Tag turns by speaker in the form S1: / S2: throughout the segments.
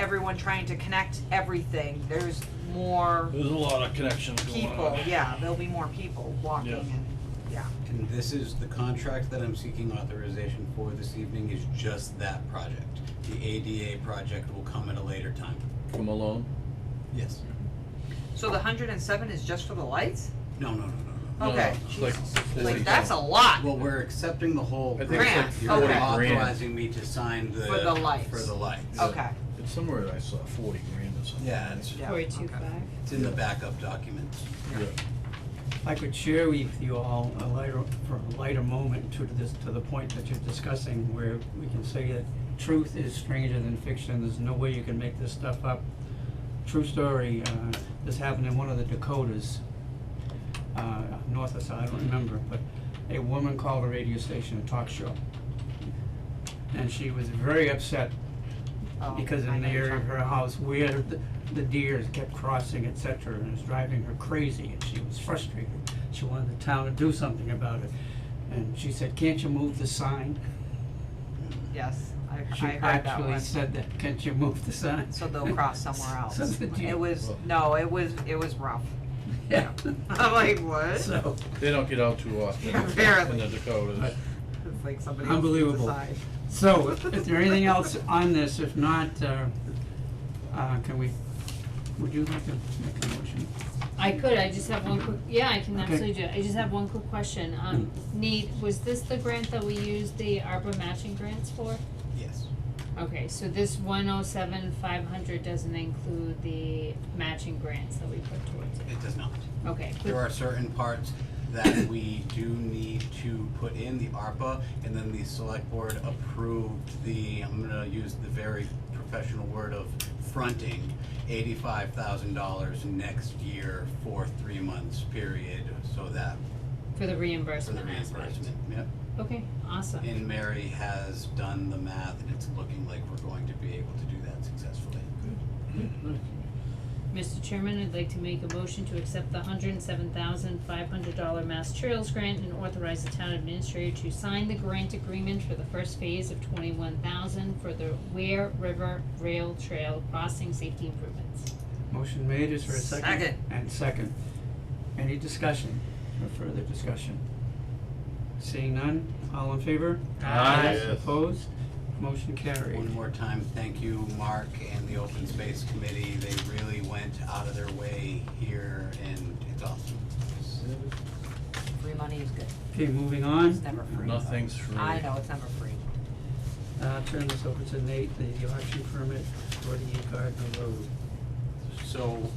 S1: everyone trying to connect everything, there's more
S2: There's a lot of connections going on.
S1: people, yeah, there'll be more people walking
S2: Yeah.
S1: and, yeah.
S3: And this is, the contract that I'm seeking authorization for this evening is just that project. The ADA project will come at a later time.
S4: From Malone?
S3: Yes.
S1: So the hundred and seven is just for the lights?
S3: No, no, no, no,
S4: No, no,
S1: Okay,
S4: it's like
S1: Jesus.
S4: 40
S1: Like, that's a
S4: grand.
S1: lot.
S3: no. Well, we're accepting the whole
S4: I think
S1: it's like
S3: grant. You're
S1: 40
S4: grand.
S3: authorizing me to sign the.
S1: For the lights.
S3: For the lights.
S4: Yeah.
S1: Okay,
S4: It's somewhere I saw forty grand or something.
S3: Yeah, it's,
S1: yeah,
S5: Four
S1: okay.
S5: two five.
S3: it's in the backup documents.
S4: Yeah.
S6: I could share with you all a lighter, for a lighter moment to this, to the point that you're discussing, where we can say that truth is stranger than fiction, there's no way you can make this stuff up. True story, uh, this happened in one of the Dakotas, uh, north of, I don't remember, but a woman called a radio station, a talk show. And she was very upset
S1: Oh,
S6: because
S1: I
S6: in the
S1: know you're
S6: area of
S1: talking
S6: her
S1: about.
S6: house where the, the deers kept crossing, et cetera, and it was driving her crazy, and she was frustrated. She wanted the town to do something about it, and she said, can't you move the sign?
S1: Yes, I, I
S6: She
S1: heard that
S6: actually
S1: one.
S6: said that, can't you move the sign?
S1: So they'll cross somewhere else.
S6: So the deer-
S1: It was, no, it was, it was rough.
S6: Yeah,
S1: I'm like, what?
S6: so,
S4: They don't get out too often in the- in
S1: Apparently.
S4: the Dakotas.
S6: but
S1: It's like somebody else
S6: Unbelievable.
S1: decided.
S6: So, is there anything else on this? If not, uh, uh, can we, would you like to make a motion?
S5: I could, I just have one quick, yeah, I can
S6: Okay.
S5: absolutely do it, I just have one quick question, um,
S3: Mm.
S5: Nate, was this the grant that we used the ARPA matching grants for?
S3: Yes.
S5: Okay, so this one oh seven five hundred doesn't include the matching grants that we put towards it,
S3: It does not.
S5: okay,
S3: There are certain parts that we do need to put in the ARPA, and then the select board approved the, I'm gonna use the very professional word of fronting, eighty-five thousand dollars next year for three months period, so that,
S5: for the
S3: for the
S5: reimbursement aspect.
S3: reimbursement, yep.
S5: Okay, awesome.
S3: And Mary has done the math, and it's looking like we're going to be able to do that successfully.
S5: Mr. Chairman, I'd like to make a motion to accept the hundred and seven thousand five hundred dollar Mass Trails grant and authorize the town administrator to sign the grant agreement for the first phase of twenty-one thousand for the Ware River Rail Trail crossing safety improvements.
S6: Motion made, is there a second?
S1: Second.
S6: And second. Any discussion, or further discussion? Seeing none, all in favor?
S4: Aye. Yes.
S6: Opposed? Motion carried.
S3: One more time, thank you, Mark and the Open Space Committee, they really went out of their way here, and it's awesome.
S1: Free money is good.
S6: Okay, moving on.
S1: It's never free.
S4: Nothing's free.
S1: I know, it's never free.
S6: Uh, turn this over to Nate, the auction permit for the Gardner Road.
S3: So,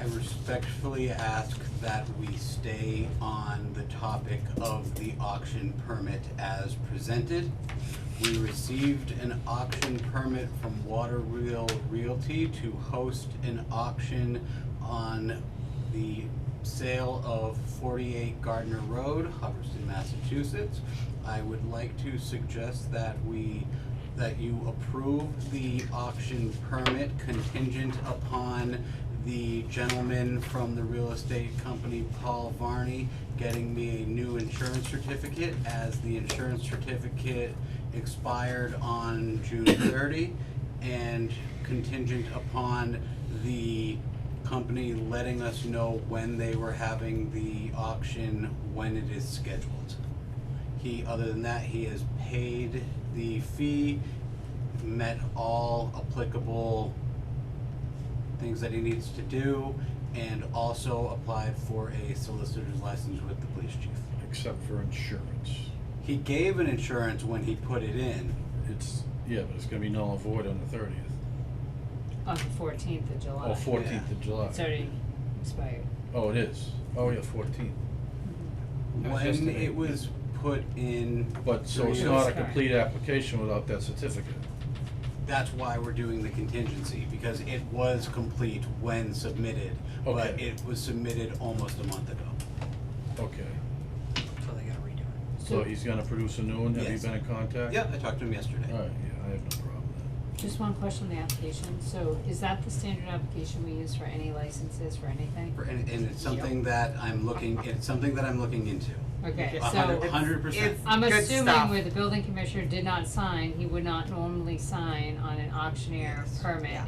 S3: I respectfully ask that we stay on the topic of the auction permit as presented. We received an auction permit from Water Wheel Realty to host an auction on the sale of forty-eight Gardner Road, Hubbardston, Massachusetts. I would like to suggest that we that you approve the auction permit contingent upon the gentleman from the real estate company, Paul Varney, getting me a new insurance certificate as the insurance certificate expired on June thirty and contingent upon the company letting us know when they were having the auction, when it is scheduled. He, other than that, he has paid the fee, met all applicable things that he needs to do, and also applied for a solicitor's license with the police chief.
S4: Except for insurance.
S3: He gave an insurance when he put it in,
S4: It's, yeah, but it's gonna be null and void on the thirtieth,
S5: On the fourteenth of July.
S4: or fourteenth of July.
S5: It's already expired.
S4: Oh, it is, oh, yeah, fourteenth,
S6: That was
S3: when
S6: yesterday.
S3: it was put in.
S4: but, so it's
S3: three-
S4: not a
S5: Correct.
S4: complete application without that certificate.
S3: That's why we're doing the contingency, because it was complete when submitted, but
S4: Okay.
S3: it was submitted almost a month ago.
S4: Okay,
S1: So they gotta redo it.
S4: so he's gonna produce a new one, have you
S3: Yes.
S4: been in contact?
S3: Yeah, I talked to him yesterday.
S4: Alright, yeah, I have no problem with that.
S5: Just one question on the application, so is that the standard application we use for any licenses, for anything?
S3: For- And, and it's something that I'm looking, it's something that I'm looking into.
S5: Okay,
S3: A
S5: so
S3: hundred, hundred percent.
S1: it's-
S5: I'm
S1: Good
S5: assuming
S1: stuff.
S5: where the building commissioner did not sign, he would not normally sign on an auctioneer
S1: Yes.
S5: permit.
S1: Yeah.